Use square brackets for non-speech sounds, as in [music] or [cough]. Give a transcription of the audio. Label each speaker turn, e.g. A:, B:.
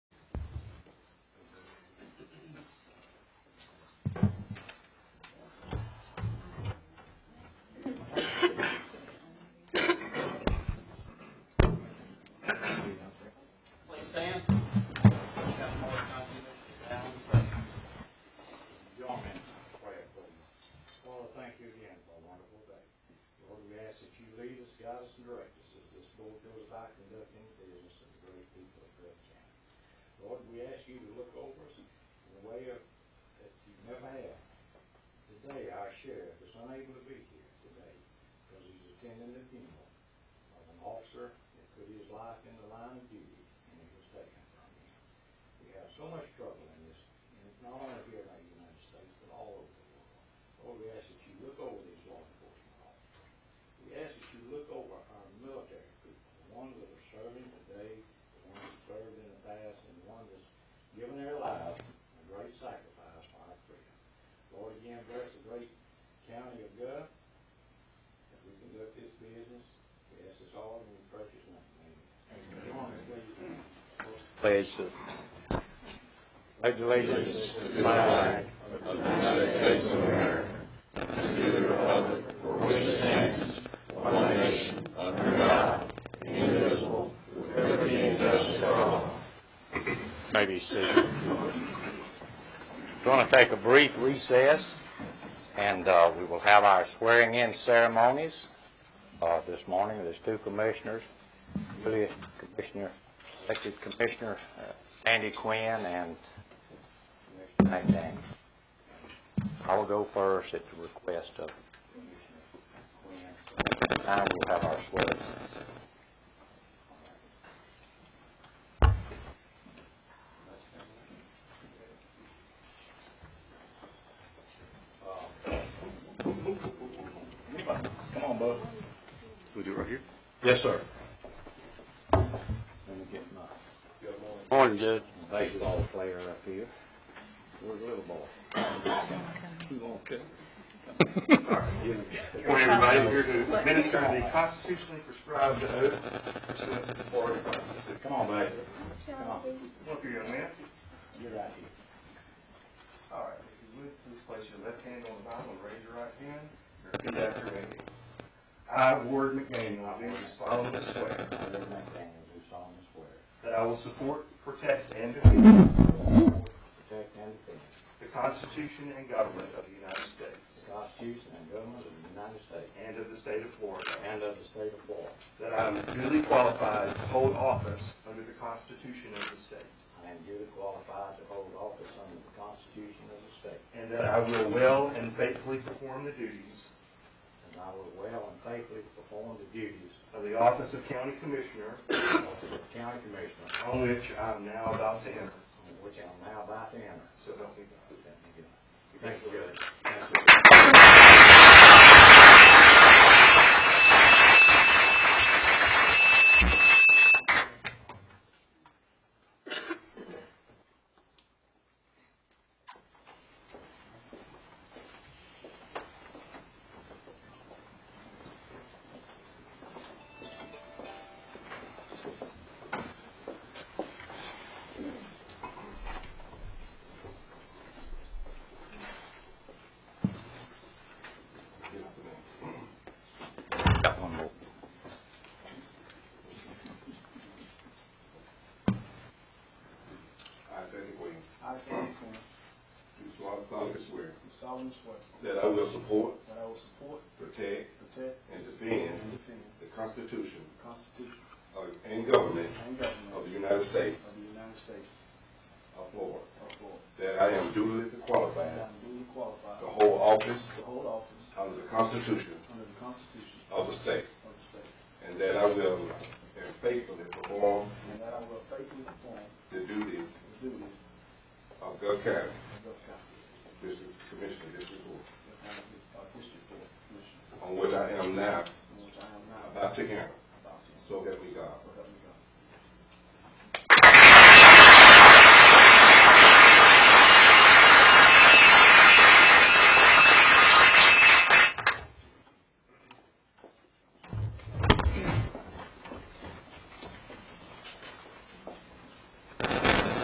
A: you to look over us in a way of- that you never have. Today, our sheriff is unable to be here today because he's attending the funeral of an officer that put his life in the line of duty and it was taken from him. We have so much trouble in this, and it's not only here in the United States, but all over the world. Lord, we ask that you look over these law enforcement officers. We ask that you look over our military people, the ones that are serving today, the ones that served in the past, and the ones that's given their lives a great sacrifice for our freedom. Lord, again, bless the great county of Guth as we conduct this business. We ask this all in your precious name. Amen. Join me, please.
B: pledge to pledge allegiance to the flag of the United States of America and to the republic for which it stands, one nation, under God, indivisible, with liberty and justice for all. [clears throat] Maybe seated. Going to take a brief recess, and uh, we will have our swearing-in ceremonies uh, this morning. There's two commissioners, Julia Commissioner elected Commissioner uh, Andy Quinn and Mike Dang. I will go first at the request of Commissioner Quinn. I will have our swearing.
A: Come on, bud.
B: we do it right here? Yes, sir. Let me get my
A: Good morning.
B: Morning, Judge. Baseball player up here. Where's the little ball?
C: Good morning, everybody. I'm here to administer the constitutionally prescribed oath pursuant to the Florida Constitution.
A: Come on, baby. Come on.
C: Come up here, young man.
A: Get right here.
C: All right, if you would, please place your left hand on the Bible and raise your right hand. Repeat after me. I, Ward McDaniel, do solemnly swear
A: I, Reverend McDaniel, do solemnly swear
C: that I will support, protect, and defend
A: that I will protect and defend
C: the Constitution and government of the United States
A: the Constitution and government of the United States
C: and of the state of Florida,
A: and of the state of Florida.
C: that I am duly qualified to hold office under the Constitution of the state,
A: I am duly qualified to hold office under the Constitution of the state,
C: and that I will well and faithfully perform the duties
A: and I will well and faithfully perform the duties
C: of the office of county commissioner,
A: of the county commissioner,
C: on which I am now about to enter.
A: on which I am now about to enter.
C: So help me God.
A: Thank you, Judge.
B: Got one more.
D: I, Sandy Quinn,
E: I, Sam Quinn,
D: do solemnly swear
E: do solemnly swear
D: that I will support,
E: that I will support,
D: protect,
E: protect,
D: and defend
E: and defend
D: the Constitution
E: the Constitution
D: of- and government
E: and government
D: of the United States
E: of the United States
D: of Florida,
E: of Florida,
D: that I am duly
E: that I
D: qualified
E: am duly
D: to
E: qualified
D: hold office
E: to hold office
D: under the Constitution
E: under the Constitution
D: of the state,
E: of the state,
D: and that I will faithfully perform
E: and that I will faithfully perform
D: the duties
E: the duties
D: of Gulf County
E: of Gulf County,
D: District Commissioner, District Four,
E: the county of District Four Commissioner,
D: on which I am now
E: in which I am now
D: about to enter,
E: about to enter.
D: so help me God.